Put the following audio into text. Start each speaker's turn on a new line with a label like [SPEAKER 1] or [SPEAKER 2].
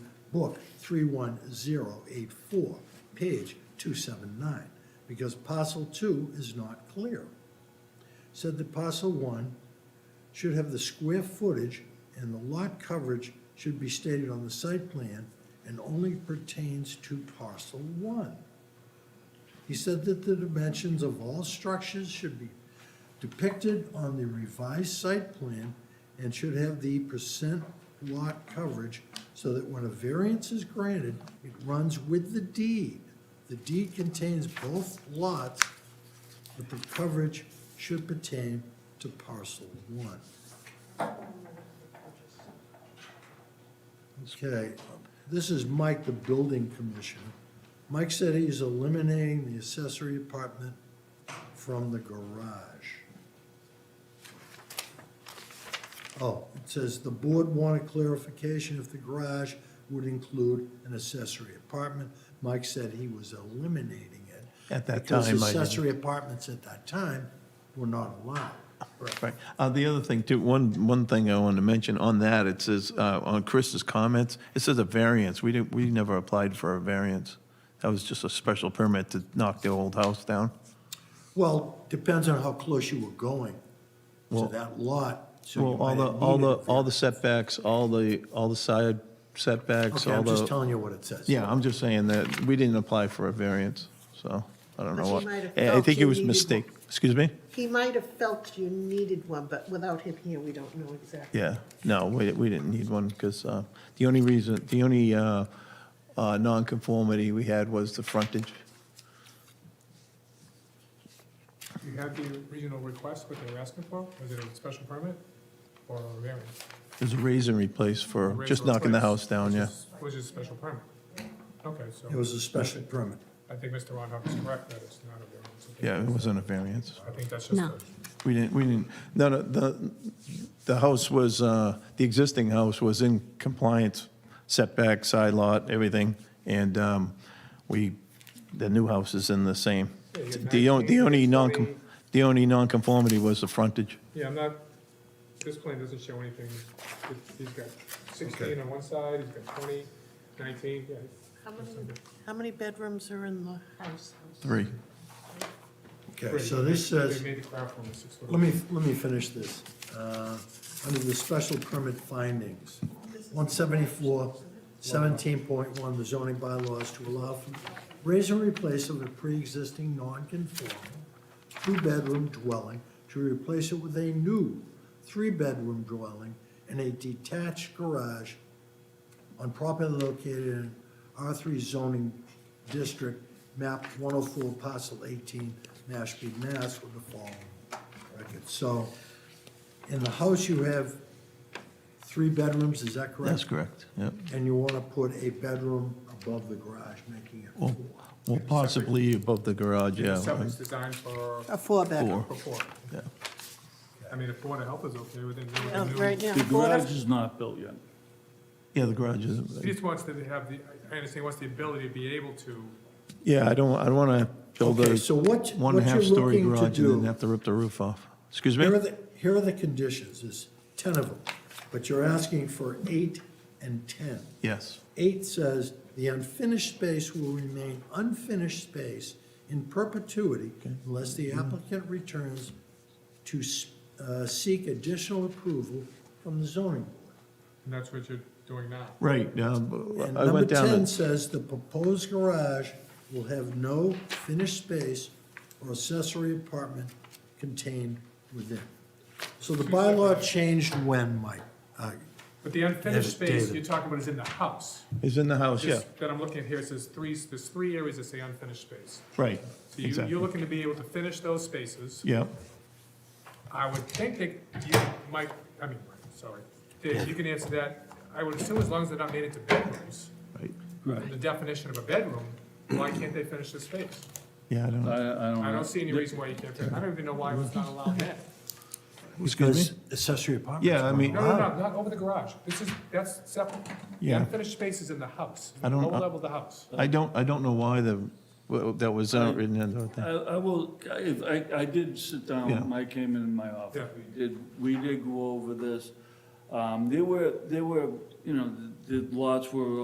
[SPEAKER 1] book 31084, page 279, because parcel two is not clear. Said that parcel one should have the square footage and the lot coverage should be stated on the site plan and only pertains to parcel one. He said that the dimensions of all structures should be depicted on the revised site plan and should have the percent lot coverage so that when a variance is granted, it runs with the deed. The deed contains both lots, but the coverage should pertain to parcel one. Okay, this is Mike, the building commissioner. Mike said he's eliminating the accessory apartment from the garage. Oh, it says the board wanted clarification if the garage would include an accessory apartment. Mike said he was eliminating it.
[SPEAKER 2] At that time,
[SPEAKER 1] Because
[SPEAKER 2] I didn't.
[SPEAKER 1] accessory apartments at that time were not allowed.
[SPEAKER 2] Right. Uh, The other thing, too, one, one thing I wanted to mention on that, it says, uh, on Chris's comments, it says a variance. We didn't, we never applied for a variance. That was just a special permit to knock the old house down.
[SPEAKER 1] Well, depends on how close you were going to
[SPEAKER 2] Well-
[SPEAKER 1] that lot. so you
[SPEAKER 2] Well, all
[SPEAKER 1] might
[SPEAKER 2] the,
[SPEAKER 1] have
[SPEAKER 2] all the,
[SPEAKER 1] needed a
[SPEAKER 2] all the setbacks, all the, all the side setbacks,
[SPEAKER 1] Okay,
[SPEAKER 2] all
[SPEAKER 1] I'm just
[SPEAKER 2] the.
[SPEAKER 1] telling you what it says.
[SPEAKER 2] Yeah, I'm just saying that we didn't apply for a variance, so I don't
[SPEAKER 3] But
[SPEAKER 2] know
[SPEAKER 3] you
[SPEAKER 2] what.
[SPEAKER 3] might have
[SPEAKER 2] I I
[SPEAKER 3] felt
[SPEAKER 2] think it
[SPEAKER 3] you
[SPEAKER 2] was
[SPEAKER 3] needed
[SPEAKER 2] mistake.
[SPEAKER 3] one.
[SPEAKER 2] Excuse me?
[SPEAKER 3] He might have felt you needed one, but without him here, we don't know exactly.
[SPEAKER 2] Yeah, no, we, we didn't need one, because the only reason, the only uh, uh, nonconformity we had was the frontage.
[SPEAKER 4] You had the original request, what they were asking for, was it a special permit or a variance?
[SPEAKER 2] It was a raise and replace for just knocking the house down, yeah.
[SPEAKER 4] Which is a special permit. Okay, so
[SPEAKER 1] It was a special permit.
[SPEAKER 4] I think Mr. Ronhoff is correct that it's not a variance. I think-
[SPEAKER 2] Yeah, it wasn't a variance.
[SPEAKER 4] I think that's just
[SPEAKER 5] No.
[SPEAKER 4] a,
[SPEAKER 2] We didn't, we didn't, no, no, the, the house was, uh, the existing house was in compliance, setback, side lot, everything, and um, we, the new house is in the same.
[SPEAKER 4] Yeah, you
[SPEAKER 2] The only, the only non,
[SPEAKER 4] 1940.
[SPEAKER 2] the only nonconformity was the frontage.
[SPEAKER 4] yeah, I'm not, this plan doesn't show anything. It- He's got sixteen on one side, he's got 20, 19. yeah.
[SPEAKER 3] How many, how many bedrooms are in the house?
[SPEAKER 2] Three.
[SPEAKER 1] Okay, so this says,
[SPEAKER 4] They made the craft one a six foot.
[SPEAKER 1] let me, let me finish this. Uh, Under the special permit findings, 174, 17.1, the zoning bylaws to allow for raise and replace of a pre-existing non-conforming two-bedroom dwelling to replace it with a new three-bedroom dwelling and a detached garage on property located in R3 zoning district, map 104, parcel 18, Mashpee, Mass, with the following record. So in the house, you have three bedrooms, is that correct?
[SPEAKER 2] That's correct, yep.
[SPEAKER 1] And you want to put a bedroom above the garage, making it
[SPEAKER 2] Well,
[SPEAKER 1] four.
[SPEAKER 2] well, possibly above the garage, yeah.
[SPEAKER 4] Septic's designed for,
[SPEAKER 3] A four-bedroom.
[SPEAKER 2] Four,
[SPEAKER 4] for four.
[SPEAKER 2] yeah.
[SPEAKER 4] I mean, if Board of Health is okay with it, then we
[SPEAKER 3] Oh,
[SPEAKER 4] can do-
[SPEAKER 3] Right, yeah.
[SPEAKER 6] The
[SPEAKER 3] four to-
[SPEAKER 6] garage is not built yet.
[SPEAKER 2] Yeah, the garage
[SPEAKER 4] He
[SPEAKER 2] is,
[SPEAKER 4] just wants to have the, I understand, he wants the ability to be able to
[SPEAKER 2] yeah, I don't, I don't want to build
[SPEAKER 1] Okay,
[SPEAKER 2] a
[SPEAKER 1] so what,
[SPEAKER 2] one and
[SPEAKER 1] what
[SPEAKER 2] a
[SPEAKER 1] you're
[SPEAKER 2] half story
[SPEAKER 1] looking to
[SPEAKER 2] garage and then
[SPEAKER 1] do,
[SPEAKER 2] have to rip the roof off. Excuse
[SPEAKER 1] here are
[SPEAKER 2] me?
[SPEAKER 1] the, here are the conditions, there's 10 of them, but you're asking for eight and 10.
[SPEAKER 2] Yes,
[SPEAKER 1] Eight says, "The unfinished space will remain unfinished space in perpetuity unless
[SPEAKER 2] Mm-hmm.
[SPEAKER 1] the applicant returns to s- uh, seek additional approval from the zoning board."
[SPEAKER 4] And that's what you're doing now.
[SPEAKER 2] right.
[SPEAKER 1] And
[SPEAKER 2] um, I
[SPEAKER 1] number
[SPEAKER 2] went down,
[SPEAKER 1] ten
[SPEAKER 2] and-
[SPEAKER 1] says, "The proposed garage will have no finished space or accessory apartment contained within." So the bylaw changed when, Mike? Uh,
[SPEAKER 4] But the unfinished
[SPEAKER 1] Yes,
[SPEAKER 4] space,
[SPEAKER 1] David.
[SPEAKER 4] you're talking about is in the house.
[SPEAKER 2] it's in the house, yeah,
[SPEAKER 4] This That I'm looking at here, it says three, there's three areas that say unfinished space.
[SPEAKER 2] right,
[SPEAKER 4] So you, you're
[SPEAKER 2] exactly.
[SPEAKER 4] looking to be able to finish those spaces.
[SPEAKER 2] Yeah,
[SPEAKER 4] I would think that you might, I mean, Mike, sorry, Dave, you can answer that. I would assume as long as they're not made into bedrooms,
[SPEAKER 2] right,
[SPEAKER 4] the definition of a bedroom, why can't they finish the space?
[SPEAKER 2] yeah, I don't,
[SPEAKER 6] I, I
[SPEAKER 1] Uh,
[SPEAKER 2] know.
[SPEAKER 6] don't.
[SPEAKER 4] I
[SPEAKER 6] know.
[SPEAKER 4] don't see any reason why you can't, fin- I don't even know why it was not allowed then.
[SPEAKER 2] excuse me?
[SPEAKER 1] because Accessory apartments.
[SPEAKER 2] Yeah, I
[SPEAKER 1] weren't
[SPEAKER 2] mean-
[SPEAKER 4] No, no,
[SPEAKER 1] allowed.
[SPEAKER 4] no, not over the garage. This is, that's separate. The
[SPEAKER 2] Yeah.
[SPEAKER 4] unfinished space is in the house,
[SPEAKER 2] I don't- uh,
[SPEAKER 4] lower level of the house.
[SPEAKER 2] I don't, I don't know why the, well, that was uh, written in the
[SPEAKER 6] I,
[SPEAKER 2] thing.
[SPEAKER 6] I will, I- I, I did sit
[SPEAKER 2] Yeah.
[SPEAKER 6] down, Mike came in my
[SPEAKER 4] Yeah.
[SPEAKER 6] office, we did, we did go over this. Um, there were, there were, you know, the the lots were